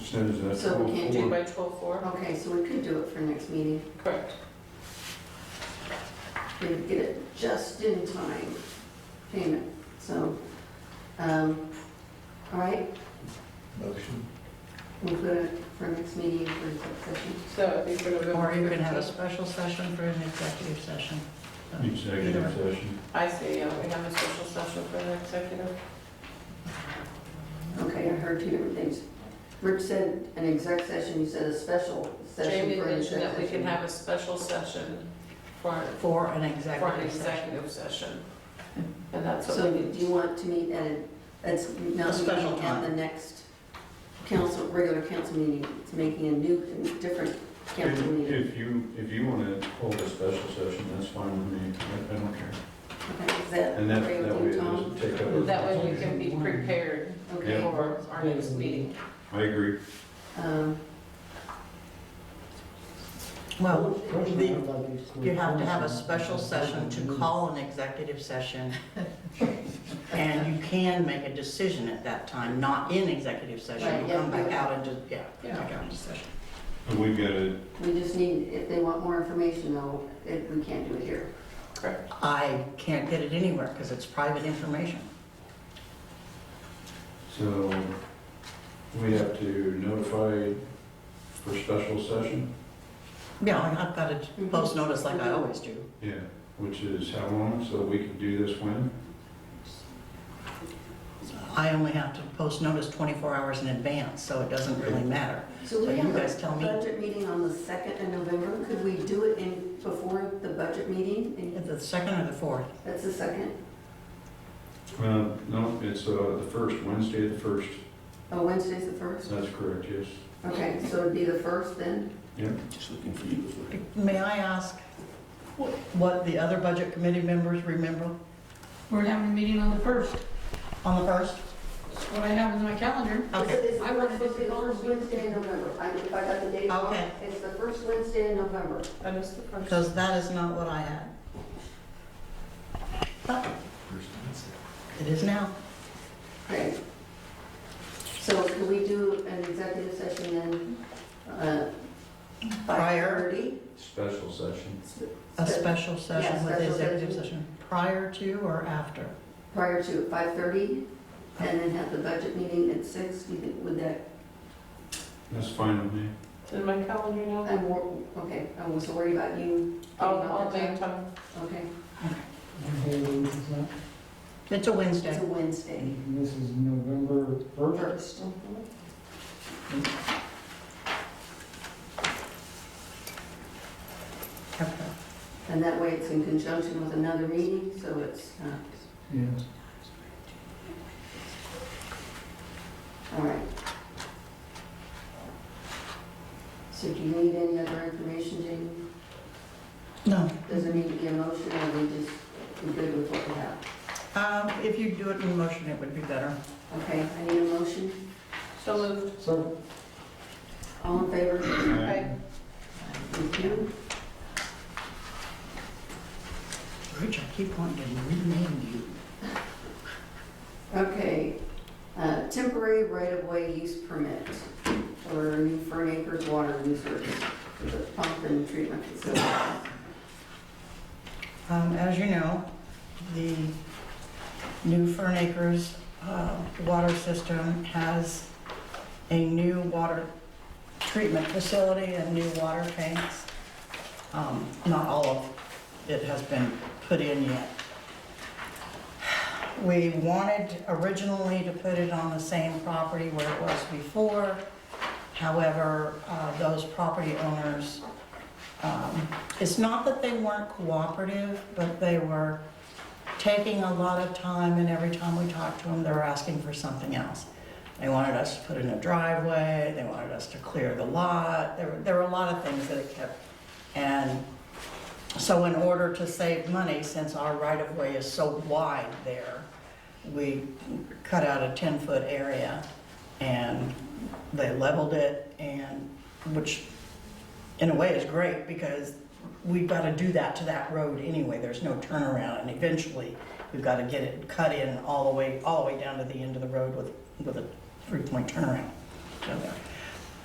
says that. So we can't before. do by twelve four? Okay, so we could do it for next meeting. Correct. We could get it just in time payment, so, um, all right, Motion. we'll put it for next meeting for exec session. So I think we're November. Or you could have a 15th. special session for an executive session. Executive session. I say, yeah, we have a special session for the executive. Okay, I heard two different things. Rich said an exec session, you said a special session Jamie for an mentioned exec that we can session. have a special session for, For an for an executive session. executive session. And that's So what we do need. you want to meet at, a- that's A not special meeting at time. the next council, regular council meeting, it's making a new, different council If meeting. if you, if you want to hold a special session, that's fine with me, I I don't care. Okay, is that And that, okay that way with it you, Tom? doesn't take up. our That way we time. can be prepared Okay. for our next meeting. I agree. Um, Well, the- Um, you you have to have a special session to call an executive session. And you can make a decision at that time, not in executive Right, session. You yeah, come back yeah. out and just, yeah, back out into session. And we've got to, We just need, if they want more information though, it- we can't do it here. Correct. I can't get it anywhere because it's private information. so we have to notify for special session? Yeah, and I've got to Mhm. post notice like I always do. Yeah, which is how long, so we can do this when? I only have to post notice 24 hours in advance, so it doesn't really matter. So So we you have guys a tell me. budget meeting on the second of November. Could we do it in, before the budget meeting? And The second or the fourth? That's the second, Uh, no, it's, uh, the first, Wednesday the first, oh, Wednesday's the first? that's correct, yes. Okay, so it'd be the first then? Just looking for you. May I ask what the other budget committee members remember We're having a meeting on the first. on the first? That's what I have in my calendar. Okay, Is it I wanted to supposed to be the do it first Wednesday in November? I, if I got the date wrong, Okay. it's the first Wednesday in November. That is the first. because that is not what I had. But it is now. Okay. So can we do an executive session then? uh, Prior, 5:30? Special session. a special session Yeah, with the special executive session. session, prior to or after? prior to five thirty, and then have the budget meeting at six, you think, would that, That's fine with me. In my calendar now. I'm, wor- okay, I was worried about you. getting I'll, all I'll the make time. time. Okay, It's a it's Wednesday. a Wednesday, And this is November first. first. Okay. And that way it's in conjunction with another meeting, so it's, uh, Yes. all right. So do you need any other information, Jamie? No, Does it need to be a motion, or we just, we're good with what we have? um, if you do it in motion, it would be better. Okay, I need a motion, So moved. So, all in favor? Okay. Thank you. Rich, I keep wanting to rename you. Okay, uh, temporary right-of-way use permit for New Fern Acres water users for the pump and treatment facility. Um, As you know, the new Fern Acres uh, water system has a new water treatment facility and new water tanks. Um, Not all of it has been put in yet. We wanted originally to put it on the same property where it was before. However, uh, those property owners um, it's not that they weren't cooperative, but they were taking a lot of time, and every time we talked to them, they were asking for something else. They wanted us to put in a driveway, they wanted us to clear the lot, there were, there were a lot of things that it kept. And so in order to save money, since our right-of-way is so wide there, we cut out a 10-foot area, and they leveled it, and, which in a way is great because we've got to do that to that road anyway. There's no turnaround and eventually we've got to get it cut in all the way, all the way down to the end of the road with, with a three-point turnaround. So,